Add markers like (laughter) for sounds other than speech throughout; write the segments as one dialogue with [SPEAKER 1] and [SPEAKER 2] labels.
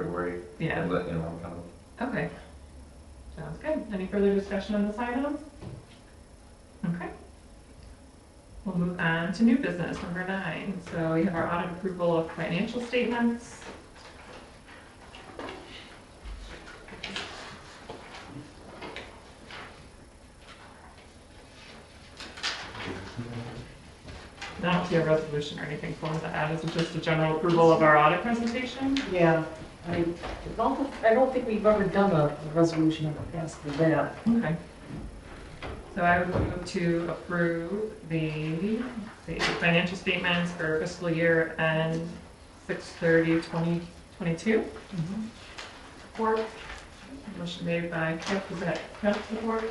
[SPEAKER 1] February.
[SPEAKER 2] Yeah.
[SPEAKER 1] And let, you know, I'm kind of
[SPEAKER 2] (laughs) Okay. Sounds good. Any further discussion on this item? Okay. We'll move on to new business, number nine. So we have our audit approval of financial statements. And I don't see a resolution or anything for us to add. Is it just a general approval of our audit presentation?
[SPEAKER 3] Yeah, I don't, I don't think we've ever done a resolution in the past for that.
[SPEAKER 2] Okay. So I would move to approve the, the financial statements for fiscal year end six thirty twenty twenty-two.
[SPEAKER 4] Mm-hmm.
[SPEAKER 2] Support. Motion made by Kip, was that Kip support?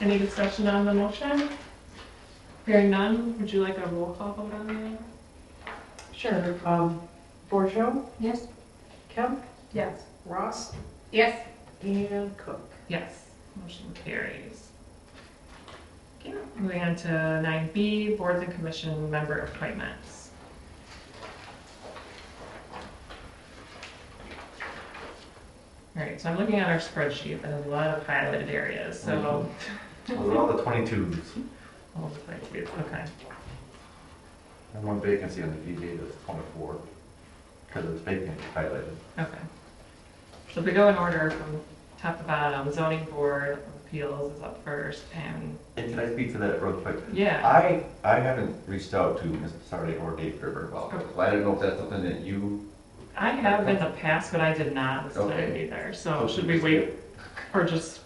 [SPEAKER 2] Any discussion on the motion? Hearing none, would you like a roll call vote on that?
[SPEAKER 3] Sure. Um, Borjo,
[SPEAKER 2] Yes.
[SPEAKER 3] Kemp,
[SPEAKER 2] Yes.
[SPEAKER 3] Ross,
[SPEAKER 2] Yes.
[SPEAKER 3] and Cook.
[SPEAKER 2] Yes, motion carries. Okay, moving on to nine B, boards and commission member appointments. All right, so I'm looking at our spreadsheet, there's a lot of highlighted areas, so,
[SPEAKER 1] Those are all the 22s.
[SPEAKER 2] I'll just like, okay,
[SPEAKER 1] And one vacancy on the DDA that's 24, because it's vacant, highlighted.
[SPEAKER 2] okay. So if we go in order from top to bottom, zoning board of appeals is up first, and,
[SPEAKER 1] And can I speak to that real quick?
[SPEAKER 2] yeah,
[SPEAKER 1] I, I haven't reached out to Ms. Sardi or Dave Gerber about it. I don't know if that's something that you.
[SPEAKER 2] I have in the past, but I did not this time
[SPEAKER 1] Okay.
[SPEAKER 2] either, so should we wait Or just,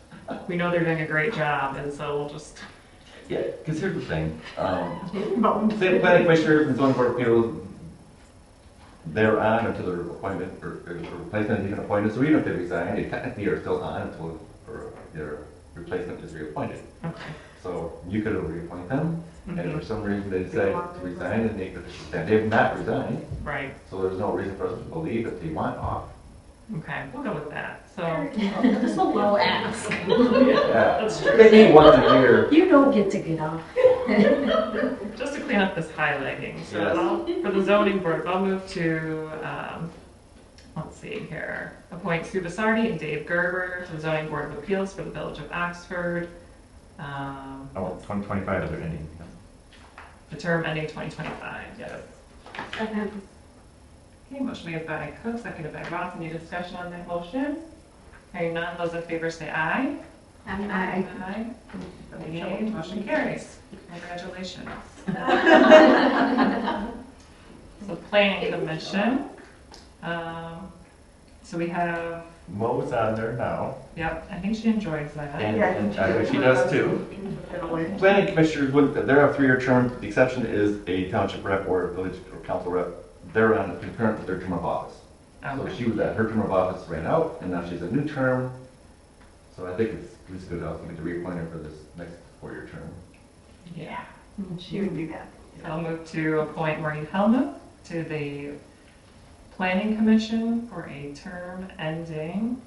[SPEAKER 2] we know they're doing a great job, and so we'll just. (laughs)
[SPEAKER 1] Yeah, because here's the thing. Um, State planning commissioners and zoning board of appeals, they're on until their appointment or or replacement is even appointed. So even if they resign, they technically are still on until or their replacement is reappointed.
[SPEAKER 2] Okay.
[SPEAKER 1] So you could reappoint them, and if for some reason they decide to resign, and they could, and they've not resigned,
[SPEAKER 2] Right,
[SPEAKER 1] so there's no reason for us to believe that they want off.
[SPEAKER 2] okay, we'll go with that, so.
[SPEAKER 4] That's a low ask.
[SPEAKER 1] Yeah, maybe once a year.
[SPEAKER 4] You don't get to get off.
[SPEAKER 2] Just to clean up this highlighting, so
[SPEAKER 1] Yes.
[SPEAKER 2] I'll- for the zoning board, I'll move to, um, let's see here. Appoint Sue Bissardi and Dave Gerber to the zoning board of appeals for the village of Oxford. Um,
[SPEAKER 1] Oh, 2025 is ending.
[SPEAKER 2] The term ending twenty twenty-five, yes.
[SPEAKER 4] Second.
[SPEAKER 2] Okay, motion made by Cook, seconded by Ross, any discussion on that motion? Hearing none, those in favor say aye.
[SPEAKER 4] I,
[SPEAKER 2] Aye. Okay, motion carries. Congratulations. (laughs) So planning commission. Um, So we have,
[SPEAKER 1] Mo's on there now,
[SPEAKER 2] yep, I think she enjoys that.
[SPEAKER 1] and and I think she does too. Planning commissioners, would- they're on three-year terms, the exception is a township rep or a village or council rep. They're on concurrent with their term of office. So
[SPEAKER 2] Okay.
[SPEAKER 1] she was at, her term of office ran out, and now she's a new term. So I think it's, it's good, I'll get to reappoint her for this next four-year term.
[SPEAKER 2] Yeah.
[SPEAKER 4] She would do that.
[SPEAKER 2] I'll move to appoint Maureen Helmuth to the planning commission for a term ending.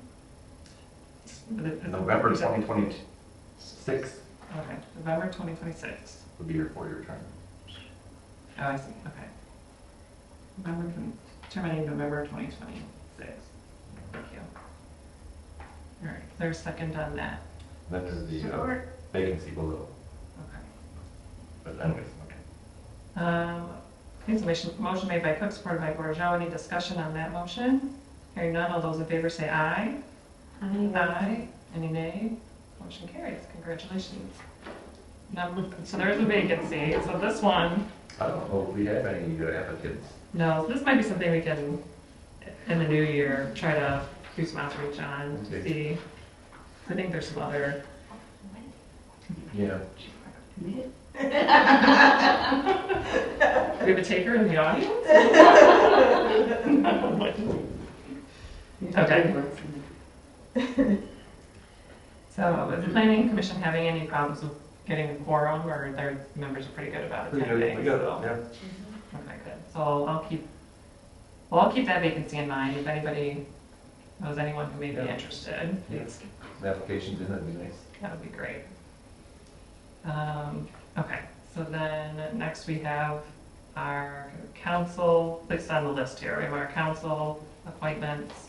[SPEAKER 1] November 2026
[SPEAKER 2] Okay, November 2026.
[SPEAKER 1] would be her four-year term.
[SPEAKER 2] Oh, I see, okay. November, terminating November 2026. Thank you. All right, there's a second on that,
[SPEAKER 1] Then there's the uh, vacancy below,
[SPEAKER 2] okay.
[SPEAKER 1] but anyways, okay.
[SPEAKER 2] Um, Okay, so motion- motion made by Cook, supported by Bourgeois, any discussion on that motion? Hearing none, all those in favor say aye. Aye. Any nay? Motion carries, congratulations. Number, so there's a vacancy, so this one,
[SPEAKER 1] I don't know if we have any uh, applicants.
[SPEAKER 2] no, this might be something we can, in the new year, try to do some outreach on, to see. I think there's some other,
[SPEAKER 1] Yeah.
[SPEAKER 2] do we have a taker in the audience? Okay. So is the planning commission having any problems with getting a quorum, or their members are pretty good about
[SPEAKER 1] Pretty good,
[SPEAKER 2] attending?
[SPEAKER 1] we got, it,
[SPEAKER 2] so-
[SPEAKER 1] yeah.
[SPEAKER 2] Okay, good. So I'll- I'll keep, well, I'll keep that vacancy in mind. If anybody knows anyone who may be
[SPEAKER 1] Yeah.
[SPEAKER 2] interested,
[SPEAKER 1] Yeah.
[SPEAKER 2] please,
[SPEAKER 1] The applications in, that'd be nice.
[SPEAKER 2] that would be great. Um, okay, so then next we have our council, placed on the list here. We have our council appointments.